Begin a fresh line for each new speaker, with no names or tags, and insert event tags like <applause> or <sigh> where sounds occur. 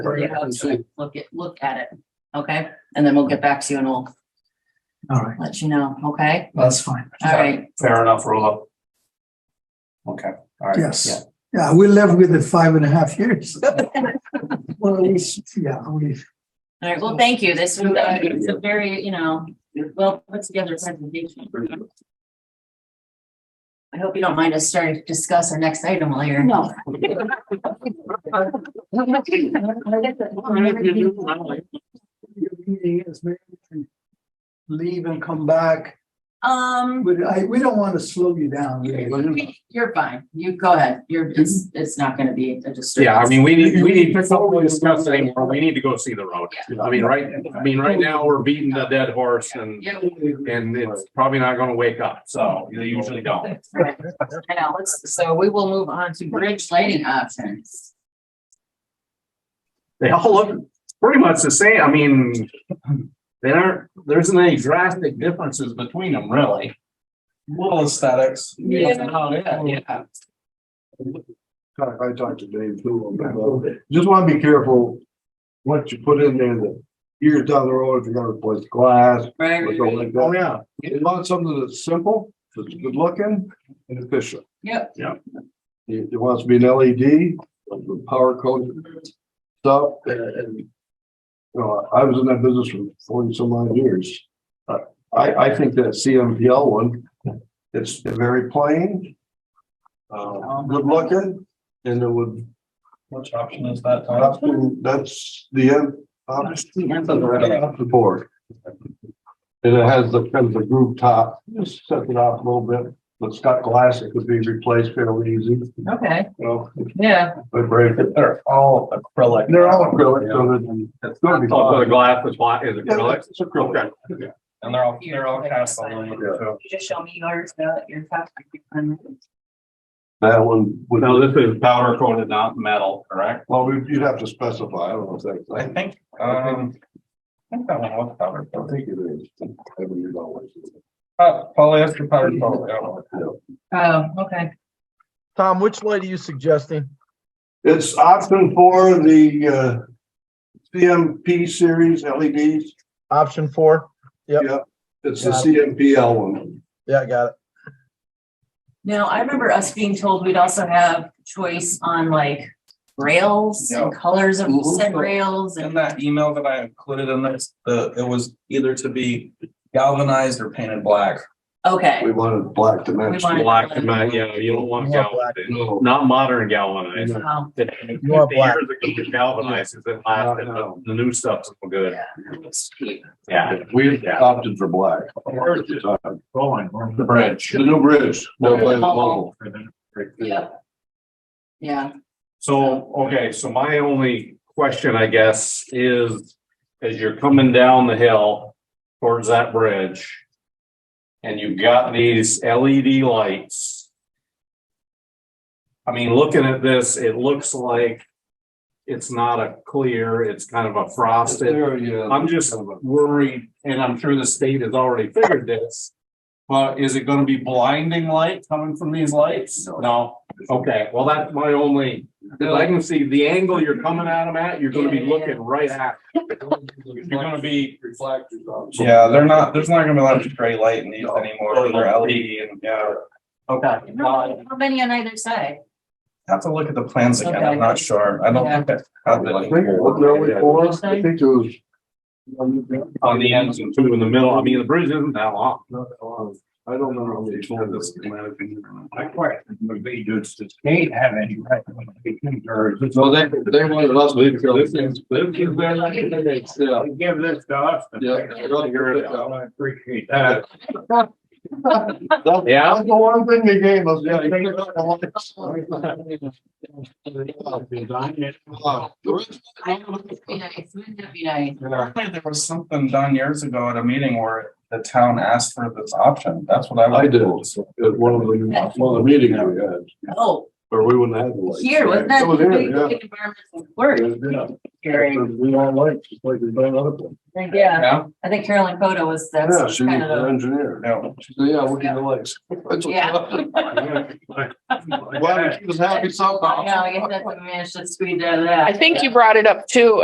Or you have to Look at, look at it, okay? And then we'll get back to you and we'll
All right,
let you know, okay?
that's fine.
All right,
Fair enough, roll up. Okay, all right.
Yes.
yeah.
Yeah, we left with the five and a
<laughs>
half years. Well, it's, yeah, we,
all right, well, thank you. This was, uh, it's a very, you know, well put together presentation. I hope you don't mind us starting to discuss our next item while you're. No.
your meeting is maybe we can leave and come back,
Um,
but I, we don't want to slow you down.
you're fine. You go ahead. You're, it's, it's not gonna be a disturbance.
Mm-hmm. Yeah, I mean, we need, we need, before we discuss anymore, we need to go see the road. I mean, right, I mean, right now, we're beating the dead horse and,
Yeah,
and it's probably not gonna wake up, so they usually don't.
right. I know, let's, so we will move on to bridge lighting options.
They all look pretty much the same, I mean, they aren't, there isn't any drastic differences between them, really.
Little aesthetics.
Yeah.
That's about it, yeah.
I talked to Dave too, about that. just wanna be careful. What you put in there, that years down the road, if you're gonna replace glass
Right,
or something like
Oh,
that.
yeah.
You want something that's simple, that's good looking and efficient.
Yep.
Yep.
It, it wants to be an LED, like with power code stuff and, and. You know, I was in that business for forty some odd years. Uh, I, I think that CMPL one, it's very plain. Uh, good looking and it would
Which option is that? Tom?
that's, that's the end. obviously, that's the right off the board. And it has the kind of the groove top, just set it off a little bit, but it's got glass, it could be replaced fairly easy, you
okay,
know,
yeah,
but break it.
They're all acrylic.
They're all acrylic, so it's gonna be
Also, the
fine.
glass is black, is acrylic.
It's acrylic.
And they're all, they're all cast aluminum too.
you just show me yours, uh, your top.
That one, would-
No, this is powder coated, not metal, correct?
well, we- you'd have to specify, I don't know if
I
that's,
think, um. I think that one was powder.
I think it is. I mean, you know, it's-
Uh, polyester powder coat, I don't know.
Oh, okay.
Tom, which light are you suggesting?
It's option for the, uh, CMP series LEDs.
Option four? Yep.
Yep, it's the CMPL one.
Yeah, I got it.
Now, I remember us being told we'd also have choice on like rails and colors of
Mhm.
said rails
In
and,
that email that I included in this, the, it was either to be galvanized or painted black.
okay.
We wanted black to match.
We wanted-
Black, yeah, you don't want
You want black.
galvanized,
No.
not modern galvanized.
Um,
that fifty
You want black.
years ago was galvanized, is it lasted, the the new stuff's no good.
yeah, that looks cheap.
Yeah.
We opted for black. The
The bridge.
new bridge. no
Yeah.
place level.
Yeah. Yeah,
So, okay, so my only question, I guess, is as you're coming down the hill towards that bridge and you've got these LED lights. I mean, looking at this, it looks like it's not a clear, it's kind of a frosted.
There, uh, yeah.
I'm just worried, and I'm sure the state has already figured this. But is it gonna be blinding light coming from these lights? No, okay, well, that's my only, 'cause I can see the angle you're coming at them at, you're gonna be
Yeah, yeah, yeah.
looking right at. You're gonna be,
Reflectors on. Oh,
Yeah, they're not, there's not gonna be a lot of stray light in these anymore. They're LED and, yeah.
okay, uh,
how many on either side?
Have to look at the plans again.
Okay.
I'm not sure. I don't think that's. out
I think,
there.
wasn't there only four? I think there was. On
on Oh, the ends and two in the middle, I mean, the bridge isn't that long.
I don't know. how many told this. So they, they wanted us to.
This is- this is their-
Yeah,
Give this to us.
yeah.
I appreciate that.
That's-
Yeah.
That's the one thing they gave us, yeah. they gave us a lot. Wow. The rest
I don't know, it'd be nice, wouldn't that be nice?
Apparently, There was something done years ago at a meeting where the town asked for this option. That's what I. was
I did, at one of the, one of the meetings we had.
Oh,
or we wouldn't have. the lights.
Here, wasn't that?
It was here, yeah.
Environmental work
Yeah,
hearing.
We all like, just like we've done other places.
Yeah,
Yeah,
I think Carolyn Coda was,
Yeah,
that's
she's an
kind of
engineer.
No.
She said, yeah, look at the lights. That's what-
Yeah.
<laughs> Glad we keep us
the.
happy
I
<laughs> somehow.
know, I guess that's what we managed to squeeze out of that.
I think you brought it up too,